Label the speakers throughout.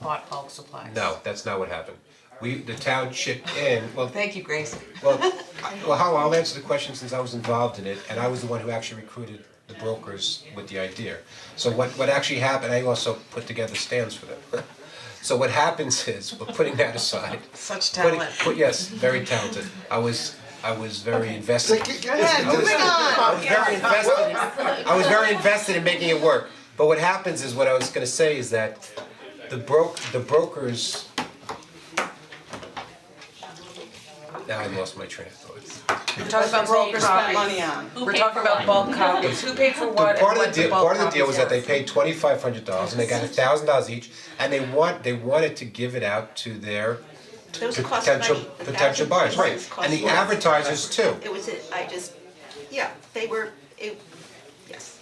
Speaker 1: bought bulk supplies.
Speaker 2: No, that's not what happened. We, the town chipped in, well,
Speaker 1: Thank you, Grace.
Speaker 2: well, I- well, how, I'll answer the question since I was involved in it, and I was the one who actually recruited the brokers with the idea. So what, what actually happened, I also put together stands for them. So what happens is, we're putting that aside.
Speaker 1: Such
Speaker 2: putting-
Speaker 1: talent.
Speaker 2: put- yes, very talented. I was, I was very invested.
Speaker 3: ahead,
Speaker 2: moving I was very invested, in- I was very invested in making it work. But what happens is, what I was gonna say is that the broke, the brokers. Now I lost my train of thought.
Speaker 1: We're talking about broker copies.
Speaker 3: spent money on.
Speaker 1: We're talking about bulk copies. Who paid for what and
Speaker 2: part
Speaker 1: what
Speaker 2: of the
Speaker 1: the
Speaker 2: deal,
Speaker 1: bulk
Speaker 2: part
Speaker 1: copies
Speaker 2: of the deal was that they
Speaker 1: were.
Speaker 2: paid twenty five hundred dollars and they got a thousand dollars each, and they want, they wanted to give it out to their
Speaker 4: Those cost money.
Speaker 2: potential,
Speaker 4: The
Speaker 2: potential
Speaker 4: thousand
Speaker 2: buyers, right,
Speaker 4: pieces cost
Speaker 2: and the
Speaker 4: money.
Speaker 2: advertisers too.
Speaker 4: It was, a- I just, yeah, they were, it, yes.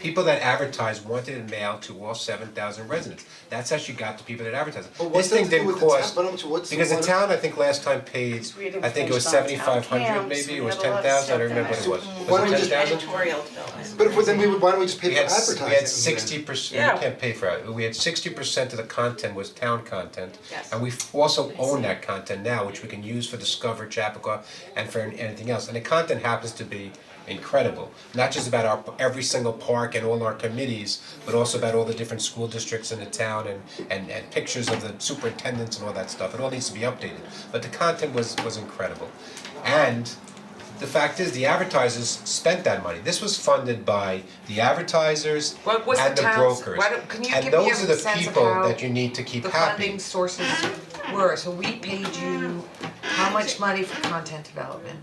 Speaker 2: People that advertised wanted it mailed to all seven thousand residents, that's how she got the people that advertised.
Speaker 5: But what's
Speaker 2: This thing
Speaker 5: that to do
Speaker 2: didn't
Speaker 5: with the town?
Speaker 2: cost,
Speaker 5: But how much- what's the
Speaker 2: because the
Speaker 5: one-
Speaker 2: town, I think last time paid, I think it was seventy five hundred maybe, it was ten thousand, I don't remember what it was,
Speaker 5: Why don't
Speaker 2: was
Speaker 5: we
Speaker 2: it
Speaker 5: just-
Speaker 2: ten thousand?
Speaker 4: Editorial development.
Speaker 5: But if, then we would, why don't we just pay
Speaker 2: We
Speaker 5: for
Speaker 2: had, s-
Speaker 5: advertising?
Speaker 2: we had sixty percent,
Speaker 1: Yeah.
Speaker 2: you can't pay for it, we had sixty percent of the content was town content.
Speaker 4: Yes.
Speaker 2: And we f- also own that content now, which we can use for Discover, Chappaqua, and for an- anything else, and the content happens to be incredible. Not just about our, every single park and all our committees, but also about all the different school districts in the town and and and pictures of the superintendents and all that stuff, it all needs to be updated, but the content was was incredible. And the fact is, the advertisers spent that money. This was funded by the advertisers
Speaker 1: What was
Speaker 2: and
Speaker 1: the
Speaker 2: the
Speaker 1: town's-
Speaker 2: brokers.
Speaker 1: why don't- can you
Speaker 2: And
Speaker 1: give me
Speaker 2: those
Speaker 1: a
Speaker 2: are the
Speaker 1: sense of
Speaker 2: people
Speaker 1: how
Speaker 2: that you need to keep
Speaker 1: The
Speaker 2: happy.
Speaker 1: funding sources were, so we paid you how much money for content development?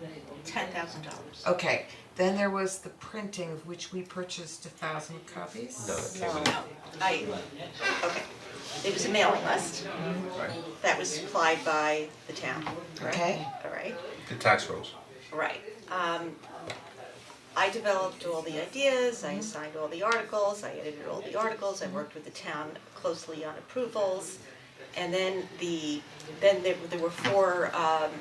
Speaker 4: ten thousand dollars.
Speaker 1: Okay, then there was the printing, of which we purchased a thousand copies.
Speaker 2: No, okay,
Speaker 4: No, I, okay, it was a mailing list. That was supplied by the town, correct?
Speaker 1: Okay.
Speaker 4: Alright,
Speaker 2: the tax rolls.
Speaker 4: right, um, I developed all the ideas,
Speaker 1: Mm-hmm.
Speaker 4: I assigned all the articles, I edited all the articles, I worked with the town closely on approvals. And then the, then there there were four um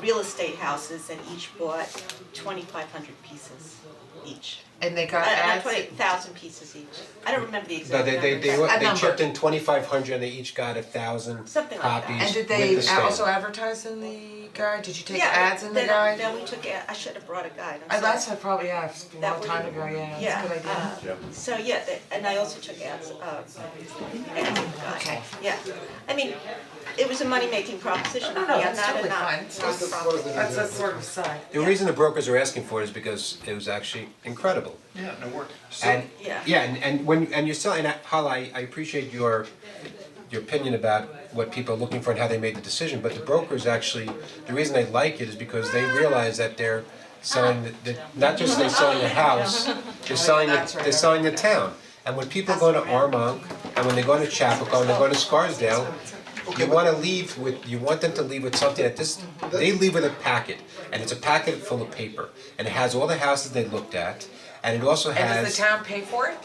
Speaker 4: real estate houses and each bought twenty-five hundred pieces each.
Speaker 1: And they got
Speaker 4: Uh,
Speaker 1: ads.
Speaker 4: not twenty, thousand pieces each, I don't remember the
Speaker 2: No,
Speaker 4: exact Uh,
Speaker 2: they
Speaker 4: number.
Speaker 2: they they
Speaker 4: but-
Speaker 2: were,
Speaker 1: A
Speaker 2: they
Speaker 1: number.
Speaker 2: chipped in twenty five hundred and they each got a thousand copies
Speaker 4: Something like that.
Speaker 1: And did
Speaker 2: with
Speaker 1: they
Speaker 2: the stamp.
Speaker 1: also advertise in the guide? Did you take
Speaker 4: Yeah,
Speaker 1: ads in the
Speaker 4: then-
Speaker 1: guide?
Speaker 4: Then we took, a- I should have brought a guide, I'm
Speaker 1: Uh,
Speaker 4: sorry.
Speaker 1: that's a probably, yeah, it's a
Speaker 4: That
Speaker 1: long
Speaker 4: would-
Speaker 1: time ago, yeah,
Speaker 4: Yeah,
Speaker 1: that's a good idea.
Speaker 4: uh, so yeah, that- and I also took ads, uh, ads in the guide.
Speaker 1: Okay.
Speaker 4: yeah. I mean, it was a money-making proposition,
Speaker 1: No,
Speaker 4: I'm
Speaker 1: no,
Speaker 4: not,
Speaker 1: that's totally
Speaker 4: a
Speaker 1: fine.
Speaker 4: not,
Speaker 1: It's
Speaker 4: not a
Speaker 5: That's what
Speaker 4: profit.
Speaker 5: it
Speaker 1: That's
Speaker 5: is.
Speaker 1: a sort of side.
Speaker 2: The reason the brokers are asking for it is because it was actually incredible.
Speaker 6: Yeah, no work.
Speaker 2: And,
Speaker 4: yeah.
Speaker 2: yeah, and and when, and you're selling, and Hala, I I appreciate your your opinion about what people are looking for and how they made the decision, but the brokers actually, the reason they like it is because they realize that they're selling, the- the, not just they're selling the house, they're selling,
Speaker 1: Oh, that's
Speaker 2: the
Speaker 1: right.
Speaker 2: they're selling the town. And when people go to Armonk, and when they go to Chapco, and they go to Scarsdale, you wanna leave with, you want them to leave with something that this, they leave with a packet, and it's a packet full of paper, and it has all the houses they looked at, and it also has.
Speaker 1: And does the town pay for it?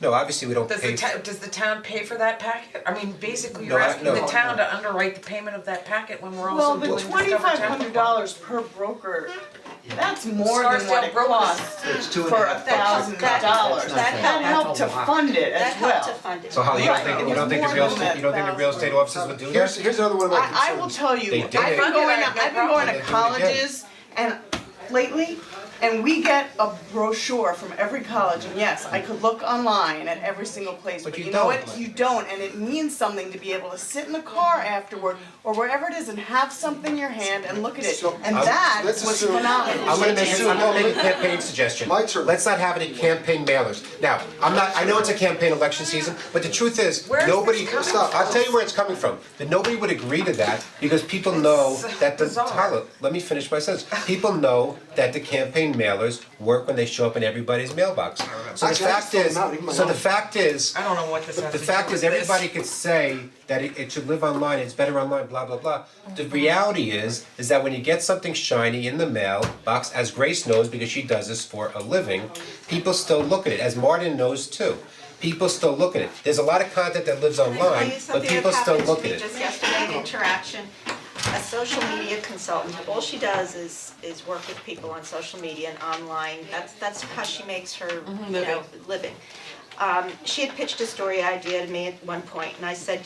Speaker 2: No, obviously, we don't
Speaker 1: Does the
Speaker 2: pay,
Speaker 1: town, does the town pay for that packet? I mean, basically, you're
Speaker 2: No, I-
Speaker 1: asking the
Speaker 2: no.
Speaker 1: town to underwrite the payment of that packet when we're
Speaker 3: Well,
Speaker 1: also doing
Speaker 3: the
Speaker 1: Discover Town.
Speaker 3: twenty-five hundred dollars per broker, that's more than
Speaker 1: Scarsdale
Speaker 3: what it
Speaker 1: brokers.
Speaker 3: costs
Speaker 6: It's two and a
Speaker 3: for a
Speaker 6: half bucks.
Speaker 3: thousand
Speaker 4: That-
Speaker 3: dollars.
Speaker 4: that-
Speaker 3: That
Speaker 4: that-
Speaker 3: helped to fund it
Speaker 4: That
Speaker 3: as
Speaker 4: helped to
Speaker 3: well.
Speaker 4: fund it.
Speaker 2: so Holly, you don't
Speaker 3: Right,
Speaker 2: think,
Speaker 3: it
Speaker 2: you don't think
Speaker 3: was
Speaker 2: the
Speaker 3: more
Speaker 2: real
Speaker 3: than
Speaker 2: estate, you don't think the real estate offices would do
Speaker 5: Here's,
Speaker 2: this?
Speaker 5: here's another one of my concerns.
Speaker 3: I I will tell
Speaker 2: They
Speaker 3: you, I've
Speaker 2: did
Speaker 3: been
Speaker 2: it.
Speaker 3: going,
Speaker 1: Yeah,
Speaker 3: I've
Speaker 1: no
Speaker 3: been
Speaker 2: problem.
Speaker 3: going to
Speaker 2: They did it
Speaker 3: colleges and lately, and we get a brochure from every college, and yes, I could look online at every single place,
Speaker 2: But
Speaker 3: but
Speaker 2: you
Speaker 3: you know
Speaker 2: don't.
Speaker 3: what, you don't, and it means something to be able to sit in the car afterward, or wherever it is, and have something in your hand and look at it, and
Speaker 5: I'm-
Speaker 3: that was
Speaker 5: let's assume-
Speaker 3: phenomenal.
Speaker 2: I'm gonna make, a- I'm gonna make a campaign suggestion.
Speaker 5: My turn.
Speaker 2: Let's not have any campaign mailers. Now, I'm not, I know it's a campaign election season, but the truth is,
Speaker 1: Where is
Speaker 2: nobody,
Speaker 1: this coming
Speaker 2: stop, I'll tell you where it's coming from. That nobody would agree to that because people know that the,
Speaker 1: bizarre.
Speaker 2: Tyler, let me finish my sentence. People know that the campaign mailers work when they show up in everybody's mailbox. So the
Speaker 5: Actually, I
Speaker 2: fact
Speaker 5: just
Speaker 2: is,
Speaker 5: throw them out, even my
Speaker 2: so the
Speaker 5: own.
Speaker 2: fact is,
Speaker 1: I don't know what this has
Speaker 2: The
Speaker 1: to do
Speaker 2: fact
Speaker 1: with
Speaker 2: is,
Speaker 1: this.
Speaker 2: everybody could say that it, it should live online, it's better online, blah, blah, blah. The reality is, is that when you get something shiny in the mailbox, as Grace knows, because she does this for a living, people still look at it, as Martin knows too. People still look at it. There's a lot of content that lives
Speaker 4: Can I tell
Speaker 2: online,
Speaker 4: you
Speaker 2: but
Speaker 4: something
Speaker 2: people
Speaker 4: that
Speaker 2: still
Speaker 4: happened to
Speaker 2: look at
Speaker 4: me
Speaker 2: it.
Speaker 4: just yesterday in interaction? A social media consultant, all she does is is work with people on social media and online, that's that's how she makes her,
Speaker 1: Mm-hmm,
Speaker 4: you know, living. Um, she had pitched a story idea to me at one point and I said,